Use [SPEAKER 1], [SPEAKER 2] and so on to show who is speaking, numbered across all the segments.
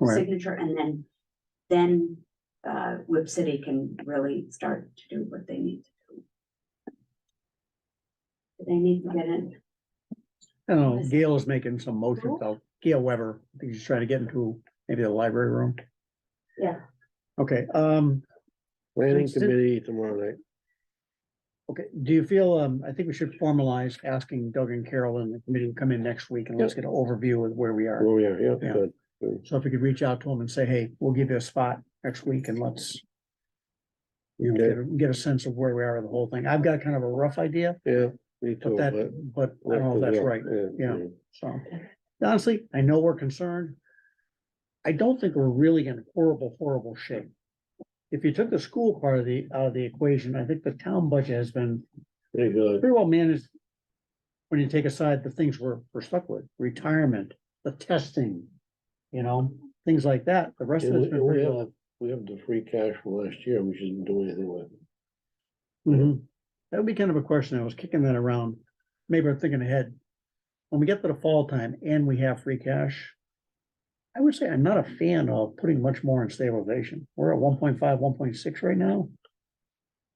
[SPEAKER 1] Right.
[SPEAKER 2] signature and then, then, uh, Whip City can really start to do what they need to do. They need to get in,
[SPEAKER 1] I don't know,
[SPEAKER 2] Listen.
[SPEAKER 1] Gail is making some motions out, Gail Weber, I think she's trying to get into maybe the library room.
[SPEAKER 2] Yeah.
[SPEAKER 1] Okay, um,
[SPEAKER 3] Planning
[SPEAKER 1] Just-
[SPEAKER 3] committee tomorrow night.
[SPEAKER 1] okay, do you feel, um, I think we should formalize asking Doug and Carol and the committee to come in next week and let's get an overview of where we are.
[SPEAKER 3] Oh, yeah, yeah,
[SPEAKER 1] Yeah.
[SPEAKER 3] good.
[SPEAKER 1] So if we could reach out to them and say, hey, we'll give you a spot next week and let's. You know,
[SPEAKER 3] Okay.
[SPEAKER 1] get a- get a sense of where we are with the whole thing. I've got kind of a rough idea,
[SPEAKER 3] Yeah, me too.
[SPEAKER 1] but that, but I don't know if that's right. yeah. So honestly, I know we're concerned. I don't think we're really in horrible, horrible shape. If you took the school part of the, out of the equation, I think the town budget has been
[SPEAKER 3] Pretty good.
[SPEAKER 1] pretty well managed. When you take aside the things we're, we're stuck with, retirement, the testing, you know, things like that, the rest of
[SPEAKER 3] And
[SPEAKER 1] it's
[SPEAKER 3] we-
[SPEAKER 1] been
[SPEAKER 3] We
[SPEAKER 1] pretty well.
[SPEAKER 3] have, we have the free cash from last year, we shouldn't do anything with. it.
[SPEAKER 1] Mhm. That would be kind of a question. I was kicking that around. Maybe I'm thinking ahead. When we get to the fall time and we have free cash. I would say I'm not a fan of putting much more in stabilization. We're at 1.5, 1.6 right now.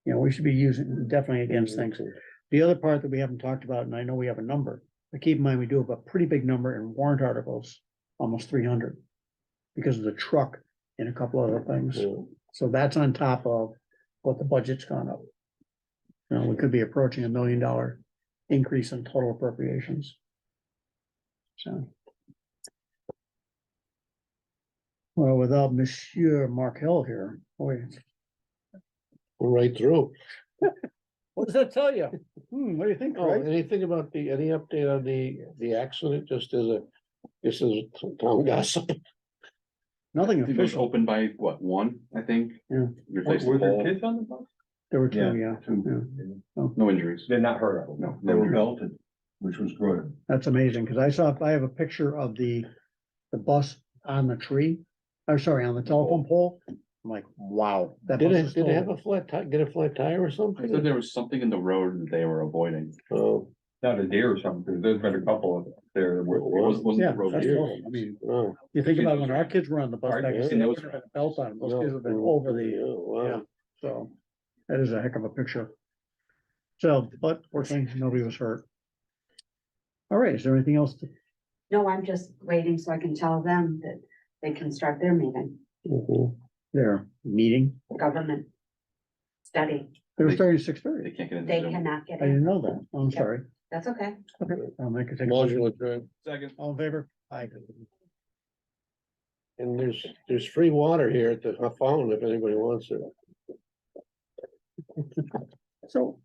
[SPEAKER 1] You know, we should be using definitely against things. The other part that we haven't talked about, and I know we have a number, but keep in mind, we do have a pretty big number in warrant articles, almost three hundred. Because of the truck and a couple other things.
[SPEAKER 3] Yeah.
[SPEAKER 1] So that's on top of what the budget's gone up. You know, we could be approaching a million dollar increase in total appropriations. So. Well, without Monsieur Mark Hill here, boy,
[SPEAKER 3] We're Right through.
[SPEAKER 1] what does that tell you? Hmm, what do you think,
[SPEAKER 3] Oh,
[SPEAKER 1] Craig?
[SPEAKER 3] anything about the, any update on the, the accident, just as a, this is town gossip.
[SPEAKER 1] Nothing
[SPEAKER 4] I think It was
[SPEAKER 1] official.
[SPEAKER 4] open by what, one, I think?
[SPEAKER 1] Yeah.
[SPEAKER 4] Replaced the
[SPEAKER 5] Were there
[SPEAKER 4] whole-
[SPEAKER 5] kids on the bus?
[SPEAKER 1] There were
[SPEAKER 5] Yeah.
[SPEAKER 1] two, yeah.
[SPEAKER 5] Two.
[SPEAKER 4] no injuries.
[SPEAKER 5] They're not hurt, of it, no, they were belted, which was good.
[SPEAKER 1] That's amazing, because I saw, I have a picture of the, the bus on the tree, or sorry, on the telephone pole. I'm like, wow. that
[SPEAKER 3] Did
[SPEAKER 1] bus
[SPEAKER 3] it,
[SPEAKER 1] is
[SPEAKER 3] did it
[SPEAKER 1] still-
[SPEAKER 3] have a flat ti, get a flat tire or
[SPEAKER 4] I thought
[SPEAKER 3] something?
[SPEAKER 4] there was something in the road that they were avoiding.
[SPEAKER 3] Oh,
[SPEAKER 5] Not a deer or something, because there's been a couple of there that were.
[SPEAKER 4] It wasn't, wasn't
[SPEAKER 1] Yeah,
[SPEAKER 4] the road.
[SPEAKER 1] that's
[SPEAKER 4] here.
[SPEAKER 1] horrible. I mean,
[SPEAKER 3] oh.
[SPEAKER 1] you think about when our kids were on the bus
[SPEAKER 5] Our
[SPEAKER 1] back
[SPEAKER 3] kids,
[SPEAKER 1] then,
[SPEAKER 4] that
[SPEAKER 1] they
[SPEAKER 4] was-
[SPEAKER 1] would have had a belt on, those
[SPEAKER 3] no,
[SPEAKER 1] kids have been
[SPEAKER 3] oh,
[SPEAKER 1] over the years,
[SPEAKER 3] oh, wow.
[SPEAKER 1] yeah. so. That is a heck of a picture. So, but fortunately, nobody was hurt. All right, is there anything else? to-
[SPEAKER 2] no, I'm just waiting so I can tell them that they can start their meeting,
[SPEAKER 3] Mhm.
[SPEAKER 1] There, meeting,
[SPEAKER 2] government study,
[SPEAKER 1] they were starting at six thirty,
[SPEAKER 4] They can't get in.
[SPEAKER 2] they cannot get
[SPEAKER 1] I
[SPEAKER 2] in,
[SPEAKER 1] didn't know that, I'm
[SPEAKER 2] Yeah.
[SPEAKER 1] sorry.
[SPEAKER 2] that's okay.
[SPEAKER 1] Um, I could take, a-
[SPEAKER 3] Modular drive.
[SPEAKER 4] Second.
[SPEAKER 1] all in favor? Aye.
[SPEAKER 3] And there's, there's free water here at the fountain if anybody wants it.
[SPEAKER 1] So